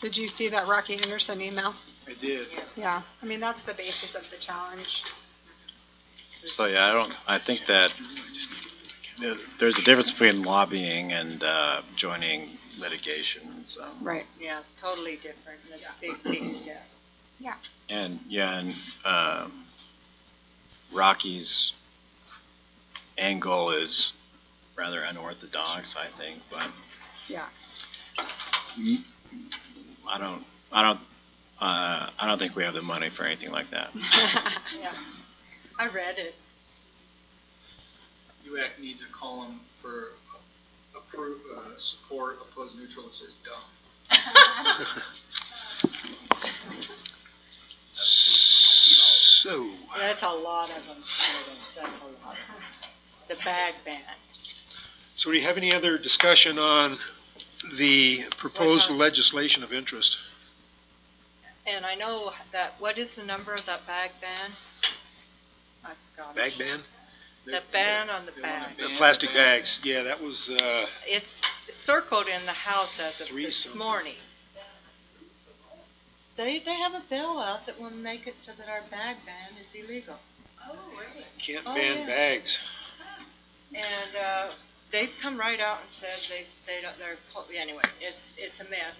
Did you see that Rocky Anderson email? I did. Yeah, I mean, that's the basis of the challenge. So, yeah, I don't, I think that th- there's a difference between lobbying and uh, joining litigation, so. Right. Yeah, totally different, that's a big, big step. And, yeah, and uh, Rocky's angle is rather unorthodox, I think, but Yeah, I don't, I don't, uh, I don't think we have the money for anything like that. Yeah, I read it. UAC needs a column for approve, uh, support, oppose, neutral, it says dumb. So, That's a lot of them, students, that's a lot. The bag ban. so do you have any other discussion on the proposed What about- legislation of interest? And I know that, what is the number of that bag ban? I forgot. Bag ban? The ban on the They wanna bag. The ban plastic the bag. bags, yeah, that was, uh, It's circled in the House as of Three this something. morning. They, they have a bill out that will make it so that our bag ban is illegal. can't Oh, yeah. ban bags. And, uh, they've come right out and said they, they don't, they're, po- anyway, it's, it's a mess.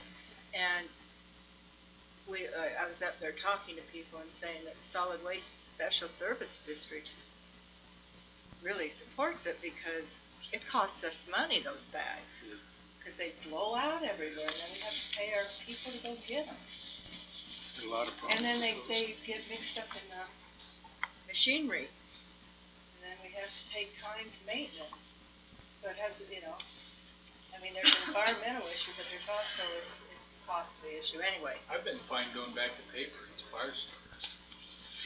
And we, uh, I- I was up there talking to people and saying that Solid Waste Special Service District really supports it because it costs us money, those bags. Cause they blow out everywhere and then we have to pay our people to go get them. A lot of And then they, problems. they get mixed up in the machinery. And then we have to take time to maintenance. So it has, you know, I mean, there's an environmental issue, but there's also, it's it's a costly issue anyway. I've been fine going back to paper, it's fire starters.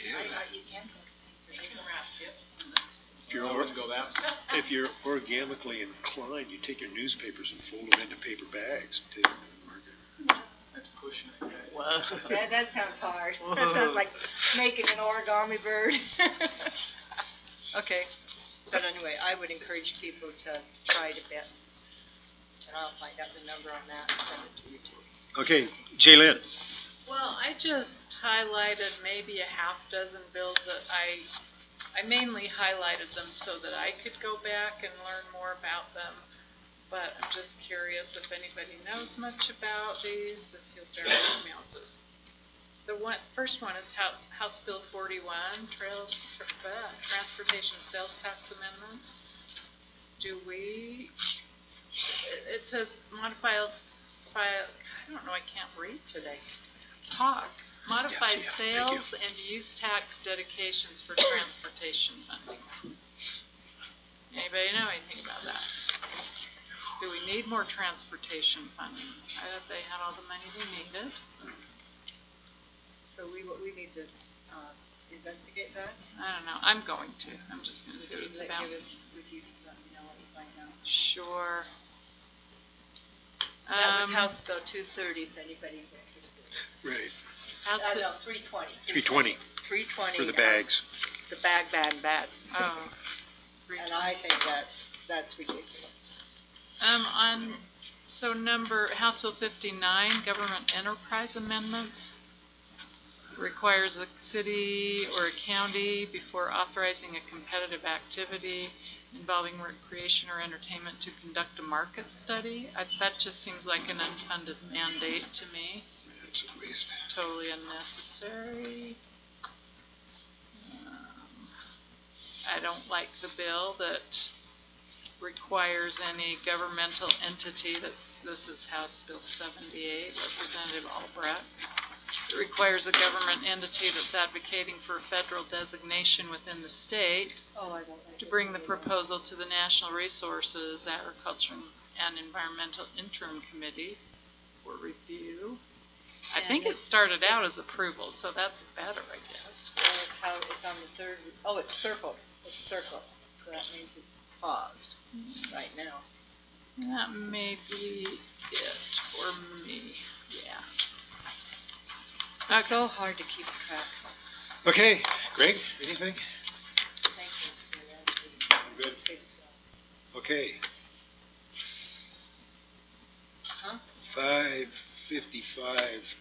Yeah. you can go to paper, If you're I over- wouldn't go that far. If you're organically inclined, you take your newspapers and fold them into paper bags to market. That's pushing it. guys. That, that sounds hard. That sounds like making an origami bird. Okay, but anyway, I would encourage people to try to bet. And I'll find out the number on that and send it to you too. Okay, Jaylen, Well, I just highlighted maybe a half dozen bills that I, I mainly highlighted them so that I could go back and learn more about them. But I'm just curious if anybody knows much about these, if you'll bear with me, I'll just. The one, first one is House, House Bill forty-one, trail, uh, transportation sales tax amendments. Do we, it- it says modify, s- fi- I don't know, I can't read today talk, modify Yes, yeah, thank you. sales and use tax dedications for transportation funding. Anybody know anything about that? Do we need more transportation funding? I thought they had all the money they needed. So we, we need to uh, investigate that? I don't know, I'm going to, I'm just gonna see what Would it's you about. give us- would you just let me know what you find out? Sure. That was Um, House Bill 230, if anybody's interested. right, House Uh, Bill- no, 320. 320 320. for the uh, bags. The bag, bag, bag. oh. And I think that's, that's ridiculous. Um, on, so number, House Bill fifty-nine, government enterprise amendments requires a city or a county before authorizing a competitive activity involving recreation or entertainment to conduct a market study. I, that just seems like an unfunded mandate to me. That's a waste. It's totally unnecessary. Um, I don't like the bill that requires any governmental entity, that's, this is House Bill 78, Representative Albrecht, It requires a government entity that's advocating for a federal designation within the state Oh, I don't like to it. bring the proposal to the National Resources, Agriculture, and Environmental Interim Committee for review. I think it started out as approval, so that's better, I guess. Well, it's how, it's on the third, oh, it's circled, it's circled. So that means it's paused right now. That may be it for me, yeah. It's so hard to keep track. Okay, Greg, anything? Thank you. Good. Okay. Huh? Five, fifty-five